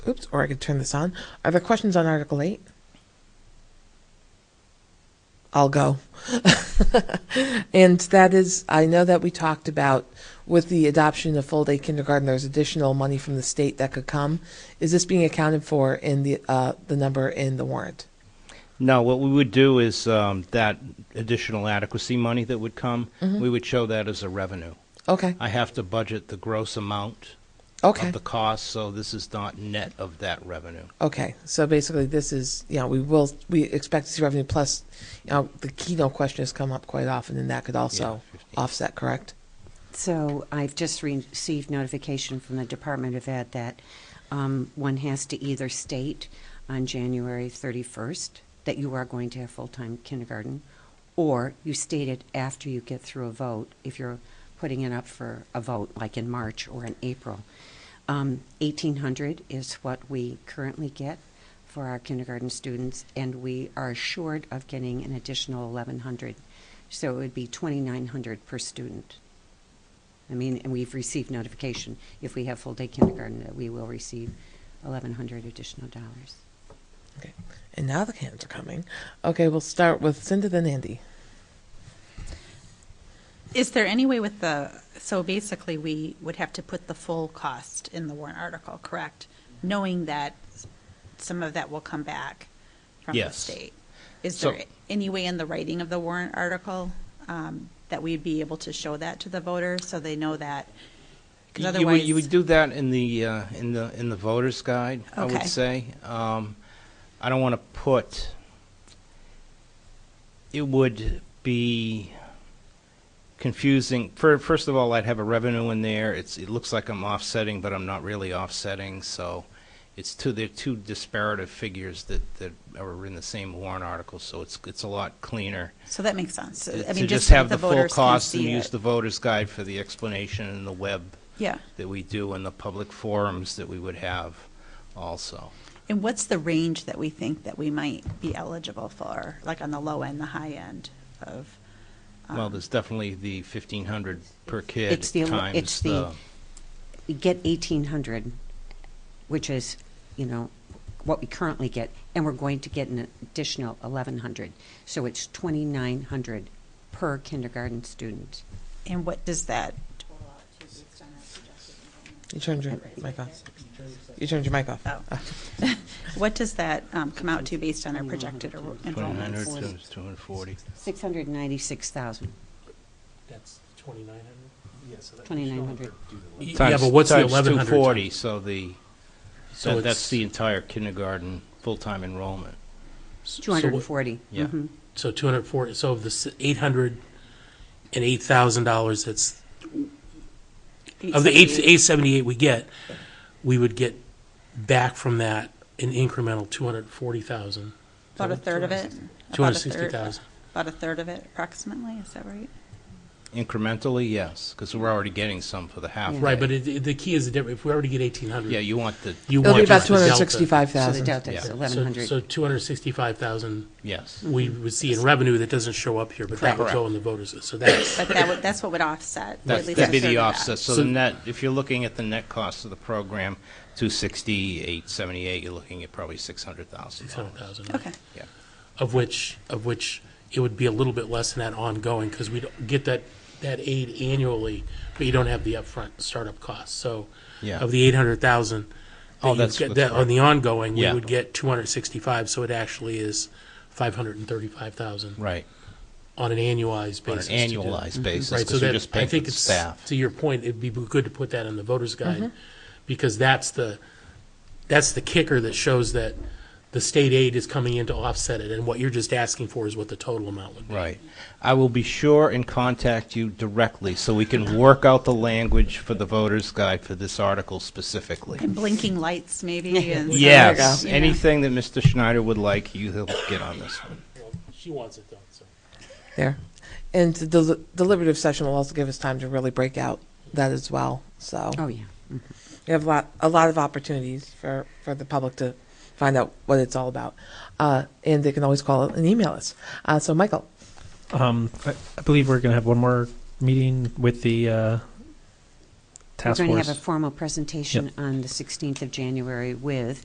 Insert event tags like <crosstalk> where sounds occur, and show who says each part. Speaker 1: Oops, or I could turn this on. Are there questions on Article 8? I'll go. <laughs> and that is, I know that we talked about with the adoption of full day kindergarten, there's additional money from the state that could come. Is this being accounted for in the, uh, the number in the warrant?
Speaker 2: No, what we would do is um, that additional adequacy money that would come, we would show that as a revenue.
Speaker 1: Okay,
Speaker 2: I have to budget the gross amount
Speaker 1: okay,
Speaker 2: of the cost, so this is not net of that revenue.
Speaker 1: okay. So basically, this is, you know, we will, we expect to see revenue plus, you know, the keynote question has come up quite often, and that could also
Speaker 2: Yeah, 15.
Speaker 1: offset, correct?
Speaker 3: So I've just re- received notification from the Department of Ed that um, one has to either state on January 31st that you are going to have full-time kindergarten, or you state it after you get through a vote, if you're putting it up for a vote, like in March or in April. Um, 1,800 is what we currently get for our kindergarten students, and we are assured of getting an additional 1,100. So it would be 2,900 per student. I mean, and we've received notification, if we have full-day kindergarten, that we will receive eleven hundred additional dollars.
Speaker 1: Okay. And now the cans are coming. Okay, we'll start with Cindy then Andy.
Speaker 4: Is there any way with the, so basically, we would have to put the full cost in the warrant article, correct? Knowing that some of that will come back from the
Speaker 2: Yes.
Speaker 4: state? Is
Speaker 2: So-
Speaker 4: there any way in the writing of the warrant article um, that we'd be able to show that to the voters so they know that? Because
Speaker 2: You would,
Speaker 4: otherwise,
Speaker 2: you would do that in the, uh, in the, in the voter's guide, I would
Speaker 4: Okay.
Speaker 2: say. Um, I don't want to put, it would be confusing. Fir- First of all, I'd have a revenue in there. It's, it looks like I'm offsetting, but I'm not really offsetting, so it's two, they're two disparative figures that, that are in the same warrant article, so it's, it's a lot cleaner.
Speaker 4: so that makes sense. I
Speaker 2: Uh, To
Speaker 4: mean,
Speaker 2: just
Speaker 4: so
Speaker 2: have
Speaker 4: that
Speaker 2: the full
Speaker 4: voters can
Speaker 2: cost and
Speaker 4: see
Speaker 2: use
Speaker 4: it.
Speaker 2: the voter's guide for the explanation and the web
Speaker 4: Yeah.
Speaker 2: that we do in the public forums that we would have also.
Speaker 4: And what's the range that we think that we might be eligible for, like on the low end, the high end of?
Speaker 2: Well, there's definitely the fifteen hundred per kid
Speaker 3: Um, It's the-
Speaker 2: times
Speaker 3: it's the-
Speaker 2: the,
Speaker 3: We get eighteen hundred, which is, you know, what we currently get, and we're going to get an additional eleven hundred. So it's twenty-nine hundred per kindergarten student.
Speaker 4: And what does that,
Speaker 1: You turned your mic off. You turned your mic off. Ah.
Speaker 4: oh, what does that um, come out to based on our projected er-
Speaker 2: twenty-nine hundred
Speaker 4: enrollments?
Speaker 2: times two hundred forty.
Speaker 3: Six hundred ninety-six thousand.
Speaker 5: That's twenty-nine hundred? Yeah, so that.
Speaker 3: 2,900.
Speaker 5: Yeah, but what's the eleven
Speaker 2: Times two forty,
Speaker 5: hundred?
Speaker 2: so the,
Speaker 5: So
Speaker 2: that- that's
Speaker 5: it's-
Speaker 2: the entire kindergarten full-time enrollment.
Speaker 3: Two hundred and forty. Mm-hmm.
Speaker 2: Yeah.
Speaker 5: So two hundred forty, so of the eight hundred and eight thousand dollars that's, of the eight, eight seventy-eight we get, we would get back from that an incremental two hundred and forty thousand.
Speaker 4: About a third of it? About
Speaker 5: Two hundred
Speaker 4: a
Speaker 5: and sixty
Speaker 4: third-
Speaker 5: thousand.
Speaker 4: About a third of it approximately, is that right?
Speaker 2: Incrementally, yes, because we're already getting some for the half.
Speaker 5: Right,
Speaker 2: day.
Speaker 5: but it- it, the key is the difference, if we already get eighteen hundred.
Speaker 2: Yeah, you want the,
Speaker 5: You
Speaker 1: It'll be
Speaker 5: want
Speaker 1: about
Speaker 5: just
Speaker 1: two
Speaker 5: the
Speaker 1: hundred and
Speaker 5: delta.
Speaker 1: sixty-five
Speaker 3: So the
Speaker 1: thousand.
Speaker 3: delta is
Speaker 2: Yeah.
Speaker 3: eleven
Speaker 5: So,
Speaker 3: hundred.
Speaker 5: so two hundred and sixty-five thousand
Speaker 2: yes.
Speaker 5: we
Speaker 1: Mm-hmm.
Speaker 5: would see in revenue that doesn't show up here, but that would go in the voters, so that's.
Speaker 4: But that would, that's what would offset. at
Speaker 2: That's-
Speaker 4: least
Speaker 2: That'd
Speaker 4: a
Speaker 2: be
Speaker 4: third
Speaker 2: the
Speaker 4: of that.
Speaker 2: offset, so
Speaker 5: So-
Speaker 2: the net, if you're looking at the net cost of the program, two sixty, eight seventy-eight, you're looking at probably six hundred thousand
Speaker 5: Hundred
Speaker 2: dollars.
Speaker 5: thousand.
Speaker 4: Okay,
Speaker 2: Yeah,
Speaker 5: Of which, of which it would be a little bit less than that ongoing, because we don't get that, that aid annually, but you don't have the upfront startup costs, so.
Speaker 2: Yeah.
Speaker 5: Of the eight hundred thousand.
Speaker 2: Oh, that's- that's
Speaker 5: That, on the ongoing, we
Speaker 2: Yeah.
Speaker 5: would get two hundred sixty-five, so it actually is five hundred and thirty-five thousand.
Speaker 2: right,
Speaker 5: On an annualized
Speaker 2: on an
Speaker 5: basis. to do- Mm-hmm.
Speaker 2: annualized basis,
Speaker 5: Right, so
Speaker 2: because you're
Speaker 5: that,
Speaker 2: just
Speaker 5: I
Speaker 2: paying for
Speaker 5: think
Speaker 2: the
Speaker 5: it's,
Speaker 2: staff.
Speaker 5: to your point, it'd be good to put that in the voter's guide, because that's the, that's the kicker that shows that the state aid is coming in to offset it, and what you're just asking for is what the total amount would be.
Speaker 2: Right. I will be sure and contact you directly, so we can work out the language for the voter's guide for this article specifically.
Speaker 4: and blinking lights
Speaker 5: <laughs>
Speaker 4: maybe and.
Speaker 2: Yes,
Speaker 4: Yeah.
Speaker 2: anything that Mr. Schneider would like, you, he'll get on this one.
Speaker 5: She wants it done, so.
Speaker 1: There. And the del- deliberative session will also give us time to really break out that as well. So
Speaker 3: Oh, yeah.
Speaker 1: we have a lot, a lot of opportunities for, for the public to find out what it's all about. Uh, and they can always call and email us. Uh, so Michael,
Speaker 6: Um, I, I believe we're going to have one more meeting with the uh,
Speaker 3: We're
Speaker 6: task
Speaker 3: going to
Speaker 6: force.
Speaker 3: have a formal presentation on the 16th of January with